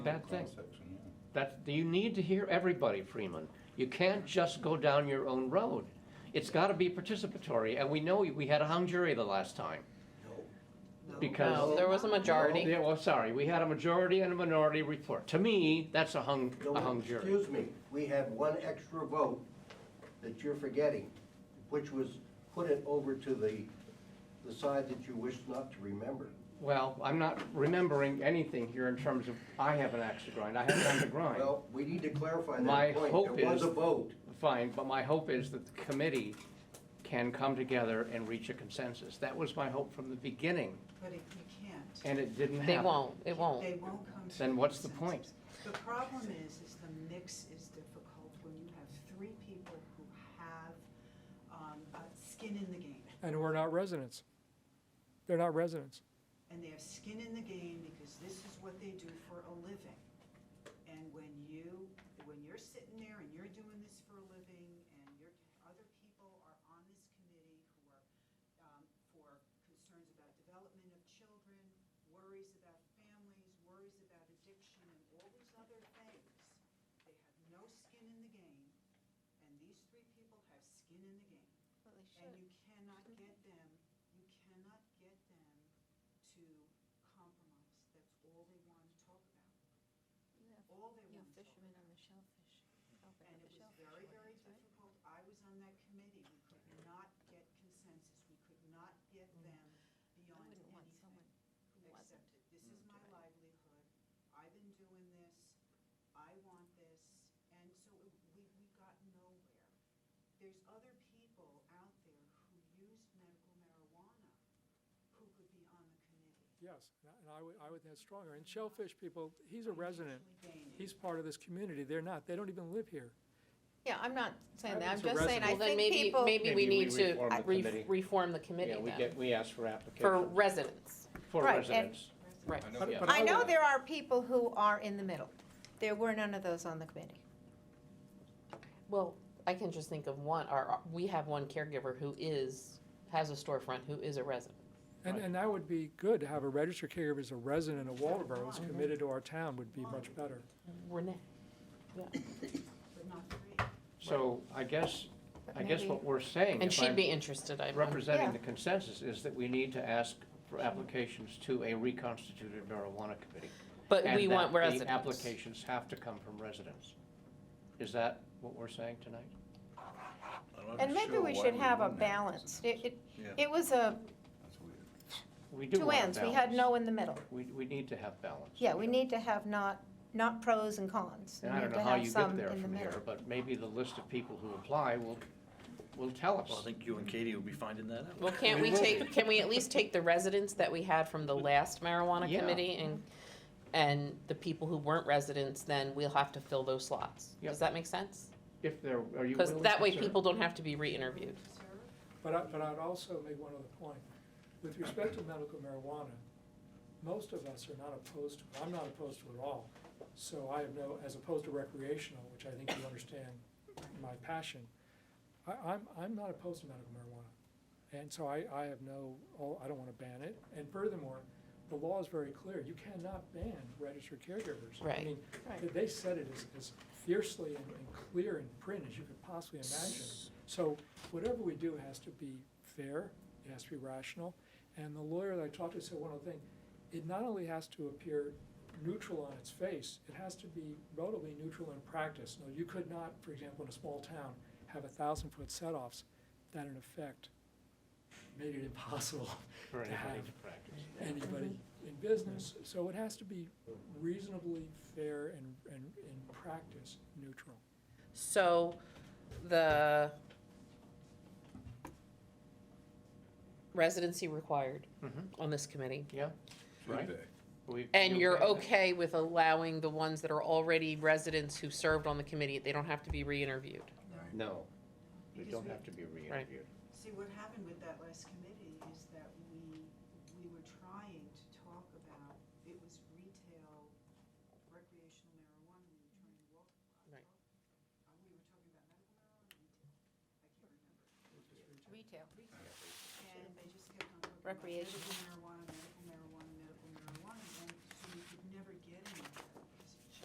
Bad thing. Cross-section, yeah. That, you need to hear everybody, Freeman. You can't just go down your own road. It's gotta be participatory, and we know we had a hung jury the last time. Because. No, there was a Oh, majority. Yeah, well, sorry, we had a majority and a minority report. To me, that's a hung, No, a hung jury. Excuse me, we had one extra vote that you're forgetting, which was put it over to the, the side that you wish not to remember. Well, I'm not remembering anything here in terms of, I have an axe to grind, I have time to grind. Well, we need to clarify My that point. hope There is- was a vote. Fine, but my hope is that the committee can come together and reach a consensus. That was my hope from the beginning, But it, you can't. and it didn't happen. They won't, it won't. They won't come to. Then a what's the consensus. The problem is, is the mix is difficult when you have three people who have, um, uh, skin in the game. and we're not residents. They're not residents. And they have skin in the game because this is what they do for a living. And when you, when you're sitting there and you're doing this for a living and your, other people are on this committee who are, um, for concerns about development of children, worries about families, worries about addiction and all these other things, they have no skin in the game. And these three people have skin in the game. And you cannot get them, you cannot get them to compromise. That's all they want to talk about. All they want to talk fishermen about. on the shellfish. Oh, And it was very, very difficult. I was on that committee. We could not get consensus. We could not get them Mm. beyond wouldn't want anything. someone Except that this Mm. is my livelihood. I've been doing this. I want this. And so it- we, we got nowhere. There's other people out there who use medical marijuana who could be on the committee. Yes, and I would, I would, that's stronger. And Shellfish people, he's a resident. He's part of this community. They're not, they don't even live here. Yeah, I'm not saying that, I'm It's a just saying, I Well, then think maybe, people, maybe Maybe we we need to reform the re- committee. reform the committee Yeah, we then, get, we asked for for applications, residents, for Right, and- residents. right. I know But- that- but I know would- there are people who are in the middle. There were none of those on the committee. Well, I can just think of one, or, we have one caregiver who is, has a storefront, who is a resident. And, and that would be good to have a registered caregiver as a resident of Waldeboro who's committed to our town would be much better. Renee, But not three. So I guess, but I guess maybe- what we're saying, and if she'd I'm be interested, I, representing Yeah. the consensus, is that we need to ask for applications to a reconstituted marijuana committee. but and we that want the residents. applications have to come from residents. Is that what we're saying tonight? I'm not And maybe sure we why should have a wouldn't have balance. It, it, Yeah. it was a, That's weird. We do two want ends, we had balance. no in the middle. We, we need to have balance. Yeah, we need to have not, not pros and cons. We And I need don't to know how have you get some there in the from middle. here, but maybe the list of people who apply will, will tell Well, I us. think you and Katie will be finding that out. Well, can't We we will. take, can we at least take the residents that we had from the last marijuana Yeah. committee and, and the people who weren't residents, then we'll have to fill those slots? Yep. Does that make sense? If there, are you Because willing that to way serve? people don't have to be re-interviewed. Serve? But I, but I'd also make one other point. With respect to medical marijuana, most of us are not opposed to, it. I'm not opposed to it at all. So I have no, as opposed to recreational, which I think you understand my passion, I, I'm, I'm not opposed to medical marijuana. And so I, I have no, oh, I don't want to ban it. And furthermore, the law is very clear. You cannot ban registered caregivers. I Right. mean, Right. They said it as, as fiercely and, and clear in print as you could possibly imagine. So whatever we do has to be fair, it has to be rational. And the lawyer that I talked to said one other thing, it not only has to appear neutral on its face, it has to be relatively neutral in practice. No, you could not, for example, in a small town, have a thousand-foot set-offs that in effect made it impossible For to anybody have to practice. anybody in business. So it has to be reasonably fair and, and in practice, neutral. So the residency required Mhm. on this committee. Yeah, Right. Should we. And you're with that? okay with allowing the ones that are already residents who served on the committee, they don't have to be re-interviewed? they? Right. No, they Because don't we- have to be re-interviewed. See, what happened with that last committee is that we, we were trying to talk about, it was retail recreational marijuana, we were trying to walk. uh, Right. talk- uh, We were talking about medical marijuana, retail, I can't remember. Retail. And they just kept on talking about Recreation. medical marijuana, medical marijuana, medical marijuana, and so we could never get anywhere.